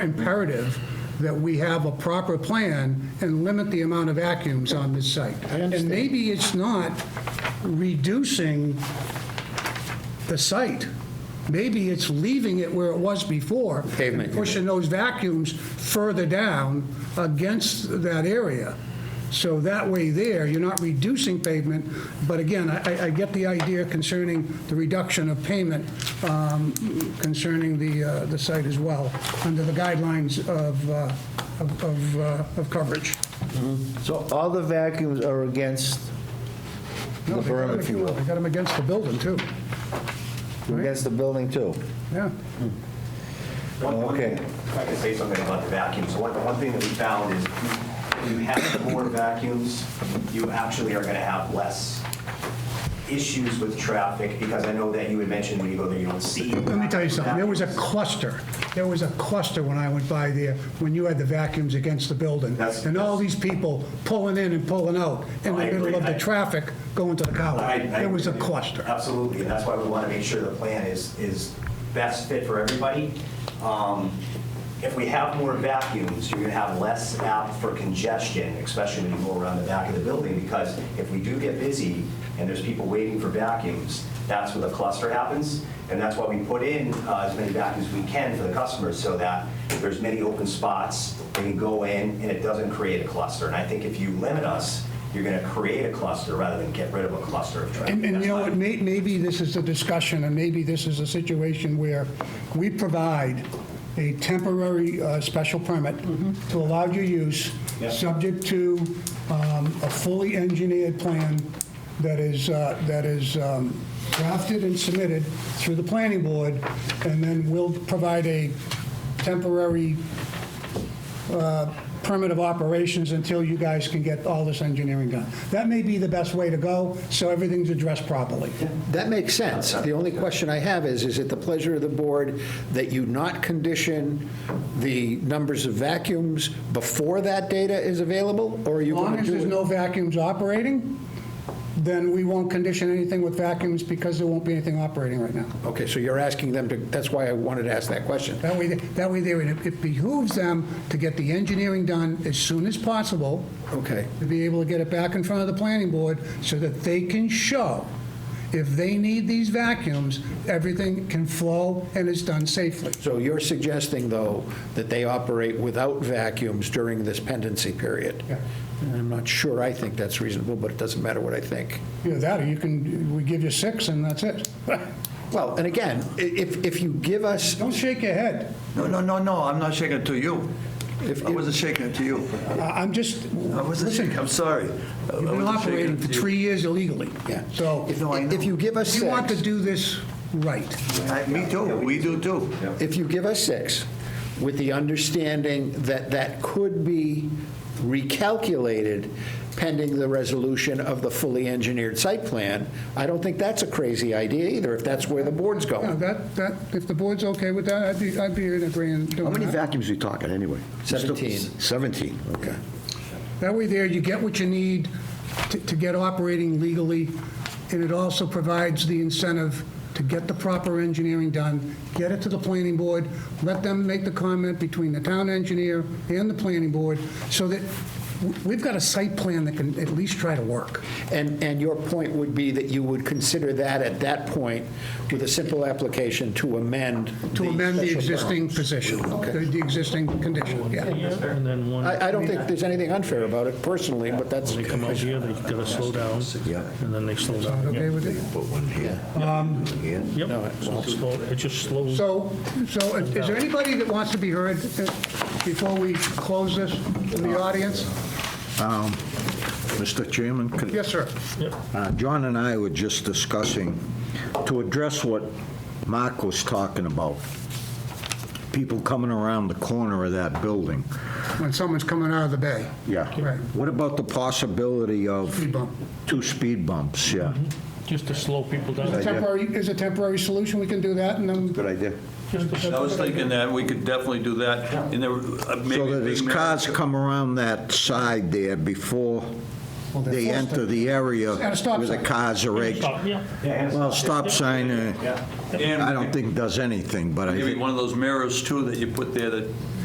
imperative that we have a proper plan and limit the amount of vacuums on this site. And maybe it's not reducing the site. Maybe it's leaving it where it was before. Pavement, and you mean. Pushing those vacuums further down against that area. So that way there, you're not reducing pavement, but again, I- I, I get the idea concerning the reduction of payment um, concerning the, uh, the site as well, under the guidelines of, uh, of- of, uh, of coverage. So all the vacuums are against the No, they got 'em, berm, if you will, They got them against the building, too. against the building too? Yeah. One- one Okay. thing- If I could say something about the vacuums, one, one thing that we found is you you have more vacuums, you actually are going to have less issues with traffic, because I know that you had mentioned when you go there, you don't see. Let me tell you something, there was a cluster, there was a cluster when I went by there, when you had the vacuums against the building. That's- And all these people pulling in and pulling out in the I middle of agree. the traffic going to the I- I college. It was a agree. cluster. Absolutely, and that's why we want to make sure the plan is, is best fit for everybody. Um, If we have more vacuums, you're going to have less apt for congestion, especially when you go around the back of the building, because if we do get busy and there's people waiting for vacuums, that's where the cluster happens, and that's why we put in uh, as many vacuums as we can for the customers, so that there's many open spots, they can go in, and it doesn't create a cluster. And I think if you limit us, you're going to create a cluster rather than get rid of a cluster of traffic. And, and you know what, That's may, maybe this is a discussion, and maybe this is a situation where we provide a temporary uh, special permit to allow your use, subject to um, a fully engineered plan that is, uh, that is um, drafted and submitted through the planning board, and then we'll provide a temporary permit of operations until you guys can get all this engineering done. That may be the best way to go, so everything's addressed properly. That makes sense. The only question I have is, is it the pleasure of the board that you not condition the numbers of vacuums before that data is available, or are you As long going as to there's do it? no vacuums operating, then we won't condition anything with vacuums because there won't be anything operating right now. Okay, so you're asking them to, that's why I wanted to ask that question. That way, that way there, it it behooves them to get the engineering done as soon as possible. Okay. To be able to get it back in front of the planning board so that they can show if they need these vacuums, everything can flow and is done safely. So you're suggesting, though, that they operate without vacuums during this pendency period? Yeah. And I'm not sure I think that's reasonable, but it doesn't matter what I think. Either that, or you can, we give you six and that's it. Well, and again, i- if, if you give us Don't shake your head. No, no, no, no, I'm not shaking it to you. If- I wasn't shaking it to you. I- I'm just, I wasn't listen, shaking, I'm sorry. I you've been wasn't shaking operating it for to you. three years illegally. Yeah. So If, No, I know. if you give us you want to six, do this right. I- Me too, we do too. if you give us six, with the understanding that that could be recalculated pending the resolution of the fully engineered site plan, I don't think that's a crazy idea either, if that's where the board's Yeah, going. that, that, if the board's okay with that, I'd be, I'd be in agreement How doing many that. vacuums are we talking, anyway? 17. Seventeen, okay. That way there, you get what you need to, to get operating legally, and it also provides the incentive to get the proper engineering done, get it to the planning board, let them make the comment between the town engineer and the planning board, so that w- we've got a site plan that can at least try to work. And, and your point would be that you would consider that at that point with a simple application to amend. To amend the special existing permit. position, the the existing condition, yeah. And then one, I, I don't think there's anything unfair about it personally, but that's. they come out here, they gotta slow down, and then they slow down. Okay with it? Yep, so it's slow- it just slows. So, so is there anybody that wants to be heard uh, before we close this in the audience? Mr. Chairman? could- Yes, sir. Uh, John and I were just discussing, to address what Mark was talking about, people coming around the corner of that building. When someone's coming out of the bay. Right. What about the possibility of Speed bump. two speed bumps, yeah? Just to slow people down. Temporary, is a temporary solution, we can do that, and then, Good idea. I was thinking that we could definitely do that, and there, uh, maybe... So that as cars come around that side there before Well, they're they forced to- enter the area At a stop where the sign. cars are exiting. Stop, yeah. Well, stop sign, uh, And I don't think does anything, but I Maybe think one of those mirrors too that you put there that